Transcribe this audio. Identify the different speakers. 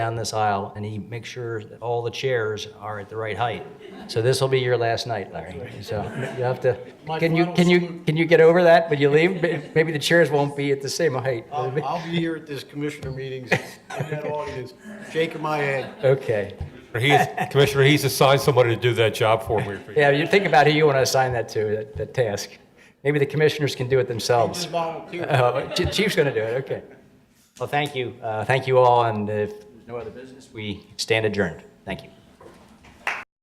Speaker 1: down this aisle, and he makes sure that all the chairs are at the right height. So this will be your last night, Larry. So you have to,
Speaker 2: My
Speaker 1: can you,
Speaker 2: final
Speaker 1: can you,
Speaker 2: salute.
Speaker 1: can you get over that when you leave? May- Maybe the chairs won't be at the same height.
Speaker 2: I'll, I'll be here at this commissioner meetings, in that audience, shaking my head.
Speaker 1: Okay.
Speaker 3: He's, Commissioner, he's assigned somebody to do that job for me.
Speaker 1: Yeah, you think about who you want to assign that to, that, that task. Maybe the commissioners can do it themselves.
Speaker 2: Just volunteer.
Speaker 1: Oh, Chi- Chief's going to do it, okay. Well, thank you. Uh, Thank you all, and if there's no other business, we stand adjourned. Thank you.